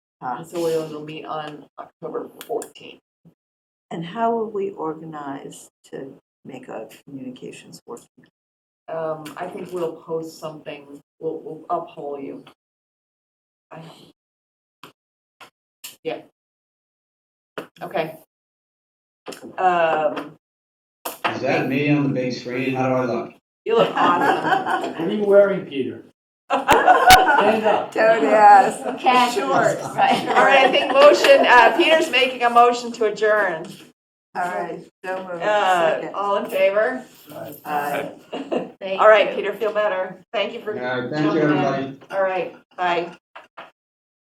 And Um, so Leo's will meet on October fourteenth. And how will we organize to make our communications work? Um, I think we'll post something, we'll, we'll uphold you. I- Yeah. Okay. Um, Is that me on the big screen? How do I look? you look awesome. What are you wearing, Peter? Stand up. Don't ask. Casuals, right. All right, I think motion, uh, Peter's making a motion to adjourn. All right, don't move. Uh, Second. all in favor? Aye. All right, Peter, feel better. Thank you All for, right, thank you, everybody. all right, bye.